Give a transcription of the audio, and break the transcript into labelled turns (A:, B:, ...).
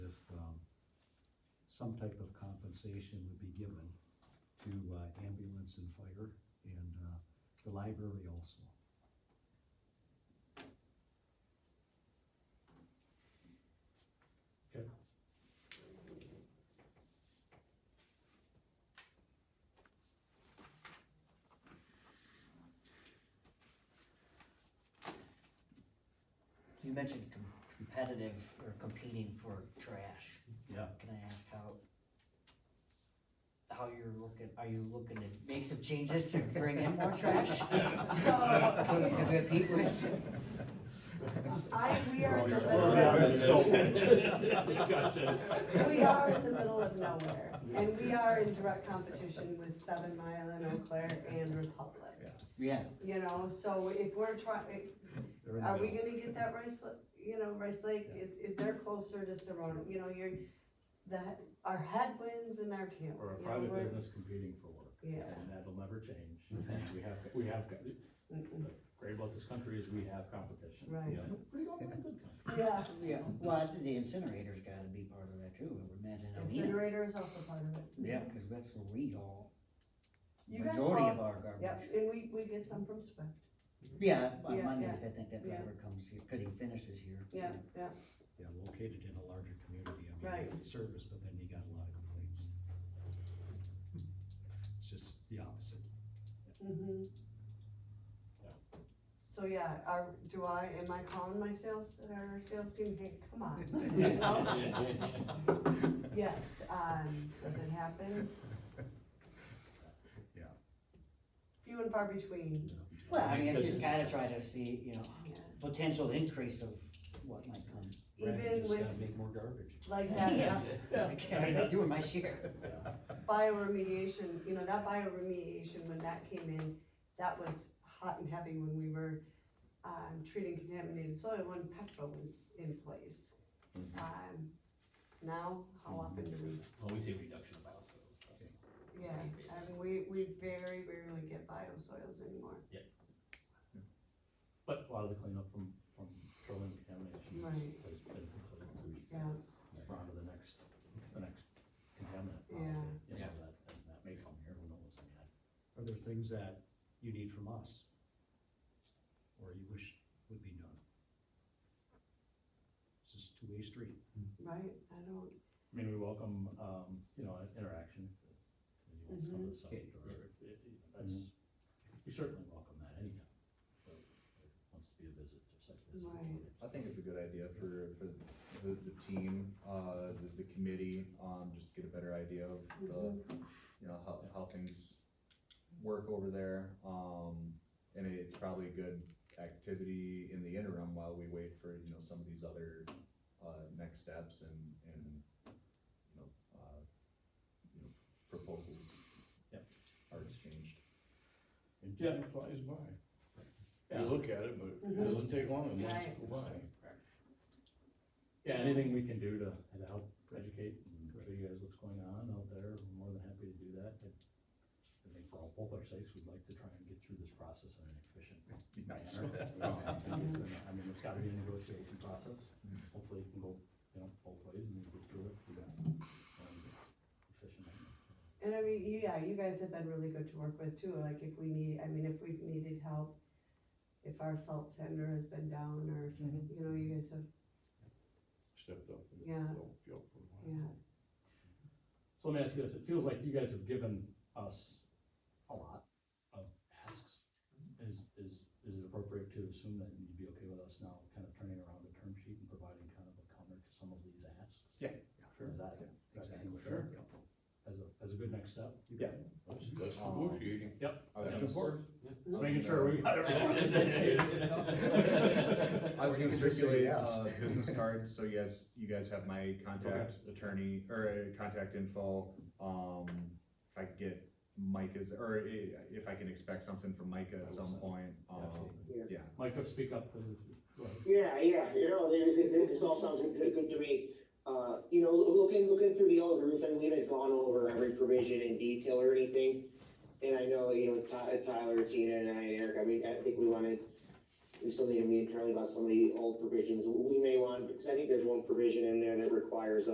A: um, some type of compensation would be given to uh, ambulance and fire and uh, the library also.
B: So you mentioned com- competitive or competing for trash.
A: Yeah.
B: Can I ask how, how you're looking, are you looking to make some changes to bring in more trash?
C: So-
B: To compete with,
C: I, we are in the
D: Well, yeah,
C: middle
D: that's-
C: of,
E: Discussion.
C: we are in the middle of nowhere, and we are in direct competition with Seven Mile and Eau Claire and Republic.
B: yeah,
C: You know, so if we're trying,
A: They're in the
C: are we
A: middle.
C: gonna get that Rice, Lake- you know, Rice Lake,
A: Yeah.
C: it's, it, they're closer to Serrano, you know, you're, that, our headwinds and our tail.
E: Or a
C: you know,
E: private
C: we're-
E: business competing for work.
C: Yeah.
E: And that'll never change. We have, we have, the
C: Mm-mm.
E: great about this country is we have competition.
C: Right.
E: Yeah. Pretty good, pretty good company.
C: Yeah,
B: yeah, well, I think the incinerator's gotta be part of that too, I would imagine. I mean,
C: incinerator is also part of it.
B: Yeah, cause that's where we all,
C: You guys
B: majority
C: all-
B: of our garbage.
C: Yep, and we, we get some from Swift,
B: Yeah, on
C: Yeah,
B: Mondays, I think that
C: yeah.
B: driver comes here, cause he finishes here.
C: yeah, yeah,
A: Yeah, located in a larger community, I mean, you
C: Right.
A: get the service, but then you got a lot of complaints. It's just the opposite.
C: mhm.
E: Yeah.
C: So, yeah, are, do I, am I calling my sales, our sales team, hey, come on? Yes, um, does it happen?
A: Yeah.
C: Few and far between,
B: Well, I mean, I
E: Makes
B: just
E: sense.
B: gotta try to see, you know,
C: yeah.
B: potential increase of what might come.
A: Right, you
C: Even
A: just
C: with
A: gotta Make more garbage.
C: like that,
B: Yeah.
C: uh,
B: I can't, I'm not doing my share.
C: bioremediation, you know, that bioremediation, when that came in, that was hot and heavy when we were, um, treating contaminated soil when petrol was in place. Um, now, how often do we,
D: Well, we see a reduction of biosolids.
C: yeah, I mean, we, we very rarely get biosoils anymore.
E: But a lot of the cleanup from, from petroleum contamination
C: Right.
E: has been completed.
C: Yeah,
E: We're on to the next, the next contaminant. policy,
C: Yeah.
E: you know,
D: Yeah.
E: that- And that may come here, who knows? I mean, I-
A: Are there things that you need from us? Or you wish would be done? This is two-way street.
C: right, I don't,
E: I mean, we welcome, um, you know, interaction. if anyone wants to come to the subject, or if- if- if That's, we certainly welcome that anytime. So, if it Wants to be a visit, just like this.
C: Right.
F: I think it's a good idea for, for the, the team, uh, the, the committee, um, just get a better idea of the, you know, how, how things work over there. Um, and it's probably a good activity in the interim while we wait for, you know, some of these other, uh, next steps and, and, you know, uh, you know, proposals.
E: Yep.
F: Are exchanged.
E: And
G: Yeah,
E: Jen,
G: it flies by.
E: Yeah.
G: You look at it, but it
C: Mhm.
G: doesn't take long, it wants
C: Right.
G: to go by.
E: Yeah, anything we can do to, to help educate and show you guys what's going on out there, we're more than happy to do that. And I think for all, both our sakes, we'd like to try and get through this process in an efficient
F: Be
E: manner.
F: nice.
E: You know, um, I think it's gonna- I mean, it's gotta be a negotiation process, hopefully it can go, you know, both ways and we get through it, you know, um, efficiently.
C: And I mean, you- yeah, you guys have been really good to work with too, like if we need, I mean, if we've needed help, if our salt sender has been down or, if you know, you guys have,
G: Stepped up. and
C: Yeah.
G: don't feel for a while.
C: yeah,
E: So let me ask you this, it feels like you guys have given us a lot of tasks. Is, is, is it appropriate to assume that you'd be okay with us now kind of turning around the term sheet and providing kind of a counter to some of these asks?
A: Sure.
E: Is that,
A: Yeah,
E: that
A: Exactly.
E: seems fair, as a, as a good next step?
F: Yeah.
G: That's, that's
F: Um,
G: negotiating.
E: Yep,
F: I was
E: Back
F: gonna
E: and
F: s-
E: forth. Just making sure we got it right.
F: I was
A: Or you could
F: gonna
A: just say
F: circulate
A: yes.
F: uh business card, so you guys, you guys have my contact attorney, or uh, contact info. Um, if I could get Mike is, or i- if I can expect something from Micah at some point, um, yeah.
E: Mike, speak up, please. Go ahead.
H: Yeah, yeah, you know, th- th- th- this all sounds good, good to me. Uh, you know, loo- looking, looking through the old rules, I mean, we haven't gone over every provision in detail or anything. And I know, you know, Ty- Tyler, Tina and I, and Eric, I mean, I think we wanted, we still need to meet Charlie about some of the old provisions. We may want, because I think there's one provision in there that requires